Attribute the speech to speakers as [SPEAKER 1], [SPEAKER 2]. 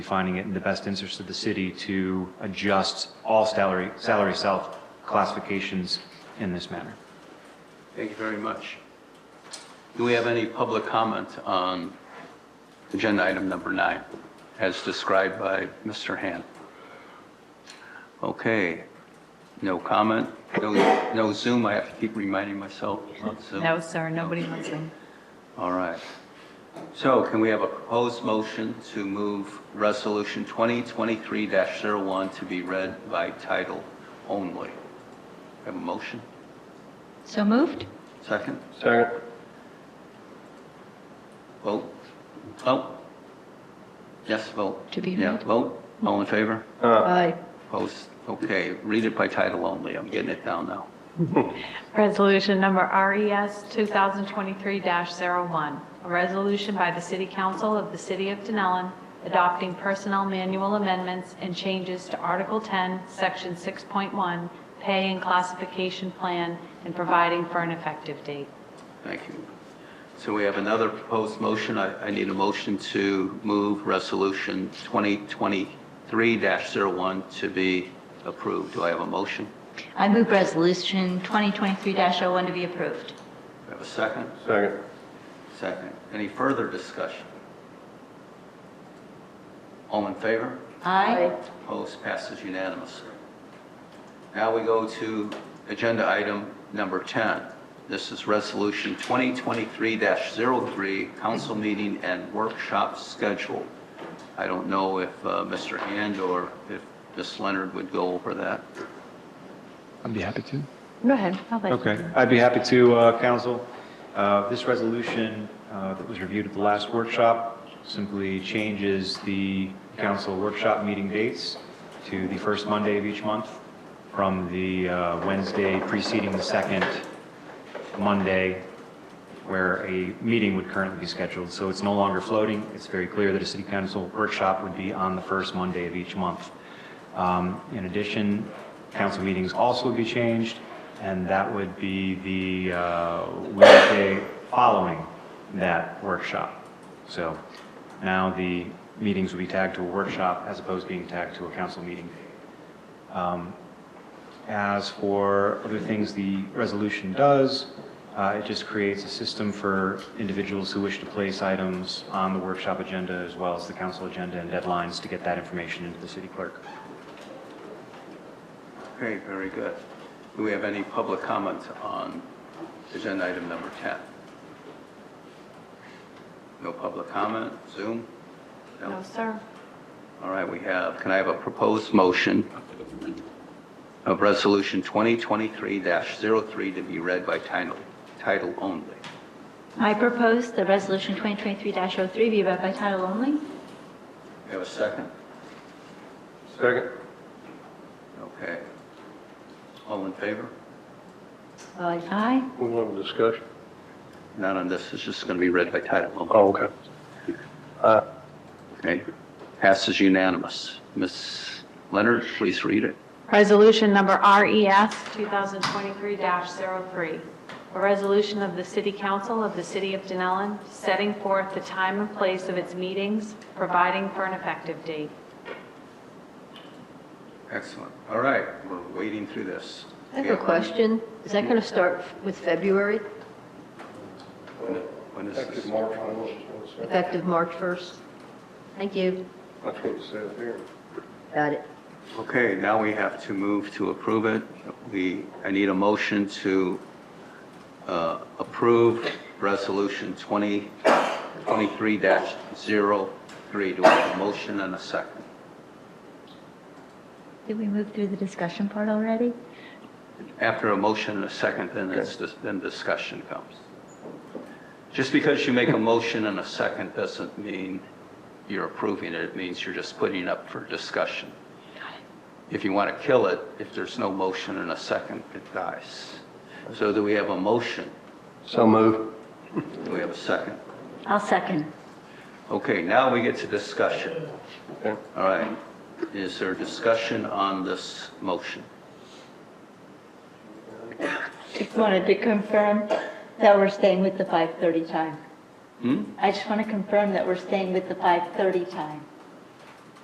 [SPEAKER 1] finding it in the best interest of the city to adjust all salary, salary self classifications in this manner.
[SPEAKER 2] Thank you very much. Do we have any public comment on agenda item number nine, as described by Mr. Han? Okay, no comment, no no Zoom, I have to keep reminding myself about Zoom.
[SPEAKER 3] No, sir, nobody wants them.
[SPEAKER 2] All right. So can we have a proposed motion to move Resolution 2023-01 to be read by title only? Have a motion?
[SPEAKER 3] So moved?
[SPEAKER 2] Second?
[SPEAKER 4] Second.
[SPEAKER 2] Vote. Vote. Yes, vote.
[SPEAKER 3] To be
[SPEAKER 2] Yeah,
[SPEAKER 3] read.
[SPEAKER 2] vote. All in favor?
[SPEAKER 3] Aye.
[SPEAKER 2] Opposed? Okay, read it by title only. I'm getting it down now.
[SPEAKER 3] Resolution number E RES 2023-01, a resolution by the City Council of the City of Denellen adopting personnel manual amendments and changes to Article 10, Section 6.1, Pay and Classification Plan, and providing for an effective date.
[SPEAKER 2] Thank you. So we have another proposed motion. I, I need a motion to move Resolution 2023-01 to be approved. Do I have a motion?
[SPEAKER 5] I move resolution 2023-01 to be approved.
[SPEAKER 2] Do I have a second?
[SPEAKER 4] Second.
[SPEAKER 2] Second. Any further discussion? All in favor?
[SPEAKER 5] Aye.
[SPEAKER 2] Opposed, passes unanimously. Now we go to agenda item number 10. This is Resolution 2023-03, council meeting and workshop schedule. I don't know if uh, Mr. Hand or if Ms. Leonard would go over that.
[SPEAKER 4] I'd be happy to.
[SPEAKER 3] Go ahead. I'll let you.
[SPEAKER 1] Okay, I'd be happy to, uh, counsel. Uh, This resolution uh, that was reviewed at the last workshop simply changes the council workshop meeting dates to the first Monday of each month from the uh, Wednesday preceding the second Monday where a meeting would currently be scheduled. So it's no longer floating. It's very clear that a city council workshop would be on the first Monday of each month. Um, In addition, council meetings also would be changed, and that would be the uh, Wednesday following that workshop. So now the meetings would be tagged to a workshop as opposed to being tagged to a council meeting date. As for other things the resolution does, uh, it just creates a system for individuals who wish to place items on the workshop agenda as well as the council agenda and deadlines to get that information into the city clerk.
[SPEAKER 2] Okay, very good. Do we have any public comment on agenda item number 10? No public comment? Zoom?
[SPEAKER 3] No, sir.
[SPEAKER 2] All right, we have, can I have a proposed motion of Resolution 2023-03 to be read by title, title only?
[SPEAKER 5] I propose that resolution 2023-03 be read by title only.
[SPEAKER 2] We have a second?
[SPEAKER 4] Second.
[SPEAKER 2] Okay. All in favor?
[SPEAKER 5] Aye.
[SPEAKER 4] We will have a discussion.
[SPEAKER 2] Not on this, it's just going to be read by title only.
[SPEAKER 4] Oh, okay.
[SPEAKER 2] Okay. Passes unanimous. Ms. Leonard, please read it.
[SPEAKER 3] Resolution number E RES 2023-03, a resolution of the City Council of the City of Denellen setting forth the time and place of its meetings, providing for an effective date.
[SPEAKER 2] Excellent. All right, we're wading through this.
[SPEAKER 6] I have a question. Is that going to start with February,
[SPEAKER 2] When is this?
[SPEAKER 4] March, I was just gonna say.
[SPEAKER 6] effective March 1st? Thank you.
[SPEAKER 4] That's what it says here.
[SPEAKER 6] Got it.
[SPEAKER 2] Okay, now we have to move to approve it. We, I need a motion to uh, approve Resolution 2023-03. Do I have a motion and a second?
[SPEAKER 5] Did we move through the discussion part already?
[SPEAKER 2] After a motion and a second, then it's, then discussion comes. Just because you make a motion and a second doesn't mean you're approving it. It means you're just putting it up for discussion. If you want to kill it, if there's no motion and a second, it dies. So do we have a motion?
[SPEAKER 4] So move.
[SPEAKER 2] Do we have a second?
[SPEAKER 5] I'll second.
[SPEAKER 2] Okay, now we get to discussion.
[SPEAKER 4] Okay.
[SPEAKER 2] All right. Is there discussion on this motion?
[SPEAKER 5] Just wanted to confirm that we're staying with the 5:30 time.
[SPEAKER 2] Hmm?
[SPEAKER 5] I just want to confirm that we're staying with the 5:30 time.